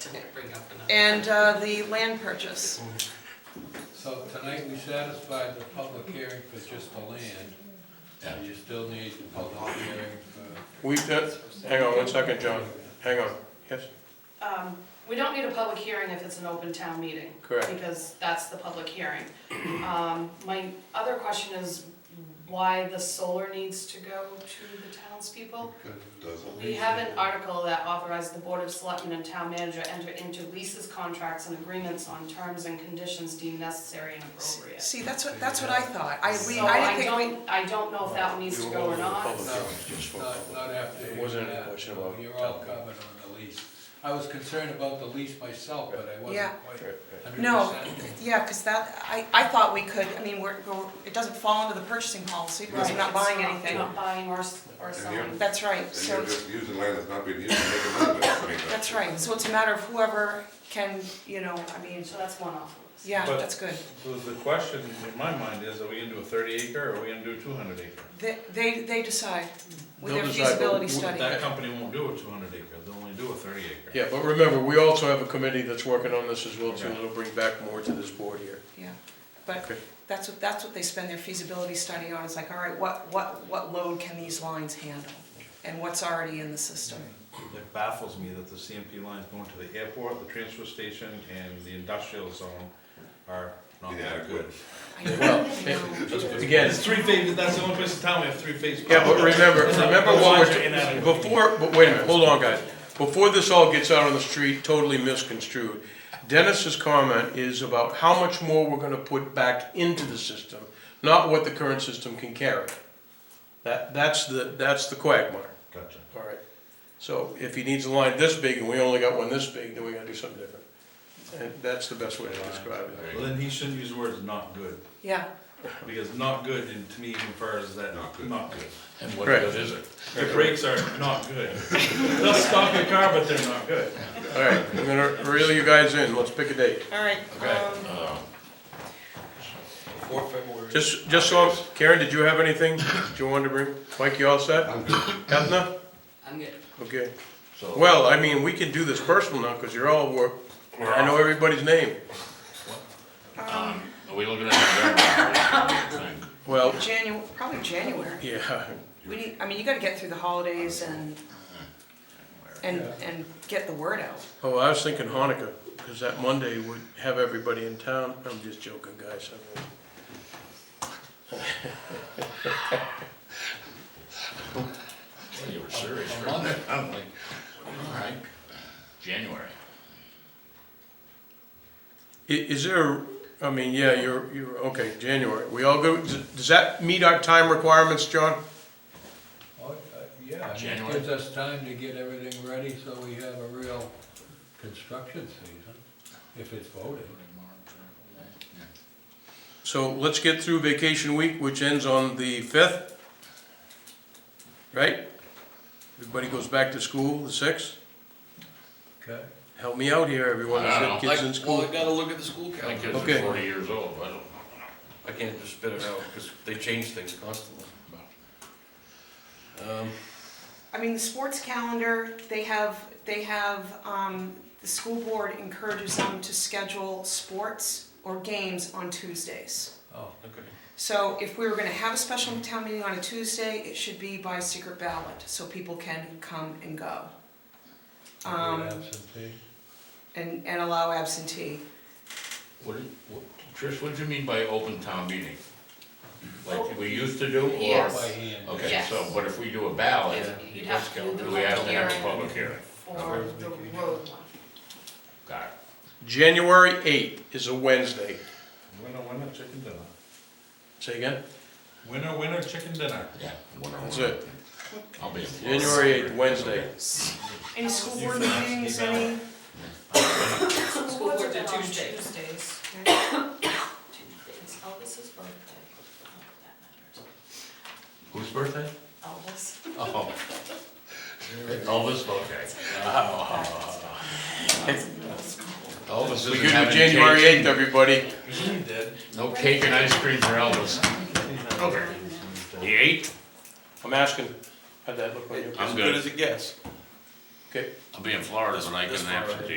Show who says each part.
Speaker 1: didn't bring up enough.
Speaker 2: and uh, the land purchase.
Speaker 3: So tonight, we satisfied the public hearing for just the land, and you still need the public hearing for,
Speaker 4: We, that, hang on one second, John, hang on, yes,
Speaker 5: Um, We don't need a public hearing if it's an open town meeting.
Speaker 4: Correct.
Speaker 5: Because that's the public hearing. Um, My other question is why the solar needs to go to the townspeople? We have an article that authorized the Board of Selectmen and Town Manager enter into leases, contracts, and agreements on terms and conditions deemed necessary and appropriate.
Speaker 2: See, that's what, that's what I thought. I, we,
Speaker 5: So
Speaker 2: I
Speaker 5: I
Speaker 2: didn't think
Speaker 5: don't, I don't know if that needs to go or not.
Speaker 4: Public
Speaker 3: no,
Speaker 4: hearing, just for
Speaker 3: not, not after
Speaker 4: It
Speaker 3: hearing
Speaker 4: wasn't a
Speaker 3: that.
Speaker 4: question
Speaker 3: No,
Speaker 4: about
Speaker 3: You're all
Speaker 4: town.
Speaker 3: covered on the lease. I was concerned about the lease myself, but I
Speaker 2: Yeah.
Speaker 3: wasn't quite
Speaker 4: Right,
Speaker 3: hundred percent.
Speaker 2: we, no, yeah, because that, I, I thought we could, I mean, we're, we're- it doesn't fall under the purchasing policy because we're not buying
Speaker 5: It's
Speaker 2: anything.
Speaker 5: Not buying or, s- or selling.
Speaker 2: That's right,
Speaker 6: And
Speaker 2: so,
Speaker 6: you're just using land that's not being used to make a living, I mean,
Speaker 2: that's right. So it's a matter of whoever can, you know, I mean,
Speaker 5: So that's one off the list.
Speaker 2: yeah,
Speaker 7: But-
Speaker 2: that's good.
Speaker 7: So the question in my mind is, are we gonna do a thirty acre or are we gonna do a two hundred acre?
Speaker 2: They, they they decide with
Speaker 4: They'll
Speaker 2: their
Speaker 4: decide, but
Speaker 2: feasibility
Speaker 4: we-
Speaker 2: study.
Speaker 7: That company won't do a two hundred acre, they'll only do a thirty acre.
Speaker 4: Yeah, but remember, we also have a committee that's working on this as well too, that'll bring back more to this board here.
Speaker 2: Yeah, but
Speaker 4: Okay.
Speaker 2: that's what, that's what they spend their feasibility study on, it's like, all right, what, what, what load can these lines handle? And what's already in the system?
Speaker 7: It baffles me that the CMP lines going to the airport, the transfer station, and the industrial zone are not that good.
Speaker 6: Inadequate.
Speaker 2: I know,
Speaker 4: Well, eh,
Speaker 2: I know.
Speaker 4: Again,
Speaker 7: It's three phase, that's the only place in town we have three phase.
Speaker 4: yeah, but remember,
Speaker 7: Those
Speaker 4: remember what
Speaker 7: lines are
Speaker 4: we're,
Speaker 7: inadequate.
Speaker 4: before, but wait a minute, hold on guys. Before this all gets out on the street, totally misconstrued, Dennis's comment is about how much more we're gonna put back into the system, not what the current system can carry. That, that's the, that's the quagmire.
Speaker 7: Gotcha.
Speaker 4: All right, so if he needs a line this big and we only got one this big, then we gotta do something different. And that's the best way to describe it.
Speaker 7: Well, then he shouldn't use the words not good,
Speaker 2: Yeah,
Speaker 7: because not good, and to me, infers that, not
Speaker 6: Not good.
Speaker 7: good.
Speaker 8: And what
Speaker 4: Correct.
Speaker 8: good is it?
Speaker 7: The brakes are not good. They'll stop your car, but they're not good.
Speaker 4: All right, I'm gonna reel you guys in, let's pick a date.
Speaker 2: all right, um,
Speaker 8: Uh,
Speaker 3: Before February.
Speaker 4: Just, just so, Karen, did you have anything that you wanted to bring? Mike, you all set?
Speaker 6: I'm good.
Speaker 4: Ethna?
Speaker 1: I'm good.
Speaker 4: Okay.
Speaker 8: So, what,
Speaker 4: Well, I mean, we can do this personal now, cause you're all, work. I know everybody's name.
Speaker 8: um, are we looking at the thing?
Speaker 4: Well,
Speaker 2: Janu, probably January.
Speaker 4: yeah,
Speaker 2: We need, I mean, you gotta get through the holidays and, and, and get the word out.
Speaker 4: oh, I was thinking Hanukkah, cause that Monday would have everybody in town. I'm just joking, guys, I mean.
Speaker 8: Well, You were serious for a
Speaker 3: Monday.
Speaker 8: minute. I'm like, all right, January.
Speaker 4: I- Is there, I mean, yeah, you're, you're, okay, January, we all go, does that meet our time requirements, John?
Speaker 3: Oh, uh, Yeah, I mean, it
Speaker 8: January.
Speaker 3: gives us time to get everything ready so we have a real construction season, if it's voted.
Speaker 4: So let's get through vacation week, which ends on the fifth, right? Everybody goes back to school the sixth,
Speaker 3: Okay.
Speaker 4: help me out here, everyone,
Speaker 8: I don't
Speaker 4: Is it kids in
Speaker 9: Like, well, I
Speaker 4: school.
Speaker 9: gotta look at the school
Speaker 8: My
Speaker 9: calendar.
Speaker 8: kids
Speaker 4: Okay.
Speaker 8: are forty years old, I don't know.
Speaker 9: I can't just spit it out, because they change things constantly. Um,
Speaker 2: I mean, the sports calendar, they have, they have, um, the school board encourages them to schedule sports or games on Tuesdays.
Speaker 3: Oh,
Speaker 9: okay.
Speaker 2: So if we were gonna have a special town meeting on a Tuesday, it should be by secret ballot, so people can come and go. Um,
Speaker 3: absentee.
Speaker 2: and, and allow absentee.
Speaker 8: What, did- what, Trish, what do you mean by open town meeting? Like we used to do, or?
Speaker 3: By
Speaker 5: Oh. Yes.
Speaker 3: hand.
Speaker 8: Okay,
Speaker 5: Yes.
Speaker 8: so, but if we do a ballot,
Speaker 5: Yeah.
Speaker 8: it
Speaker 5: You'd
Speaker 8: does
Speaker 5: have to
Speaker 8: go,
Speaker 5: do the
Speaker 8: do we have to have a
Speaker 5: public
Speaker 8: public hearing?
Speaker 5: for the road one.
Speaker 8: Got it.
Speaker 4: January eighth is a Wednesday,
Speaker 7: Winner, winner, chicken dinner.
Speaker 4: say again,
Speaker 7: Winner, winner, chicken dinner.
Speaker 8: Yeah.
Speaker 4: that's it,
Speaker 8: I'll be. in Florida.
Speaker 4: January eighth, Wednesday.
Speaker 2: Any school
Speaker 7: You
Speaker 2: board
Speaker 7: can ask
Speaker 2: meetings,
Speaker 7: me that.
Speaker 2: any,
Speaker 5: School board did Tuesdays. Tuesdays. Elvis's birthday. Oh, that matters.
Speaker 8: Whose birthday?
Speaker 5: Elvis.
Speaker 8: Oh. Elvis, okay. Elvis isn't
Speaker 4: We could do
Speaker 8: having
Speaker 4: January
Speaker 8: cake.
Speaker 4: eighth, everybody,
Speaker 7: He did.
Speaker 8: No cake and ice cream for Elvis. Okay. He ate?
Speaker 4: I'm asking, how'd that look on you?
Speaker 8: I'm
Speaker 9: As
Speaker 8: good.
Speaker 9: good as it gets.
Speaker 4: Okay.
Speaker 8: I'll be in Florida, but I
Speaker 9: This
Speaker 8: can
Speaker 9: far, right?
Speaker 8: absentee.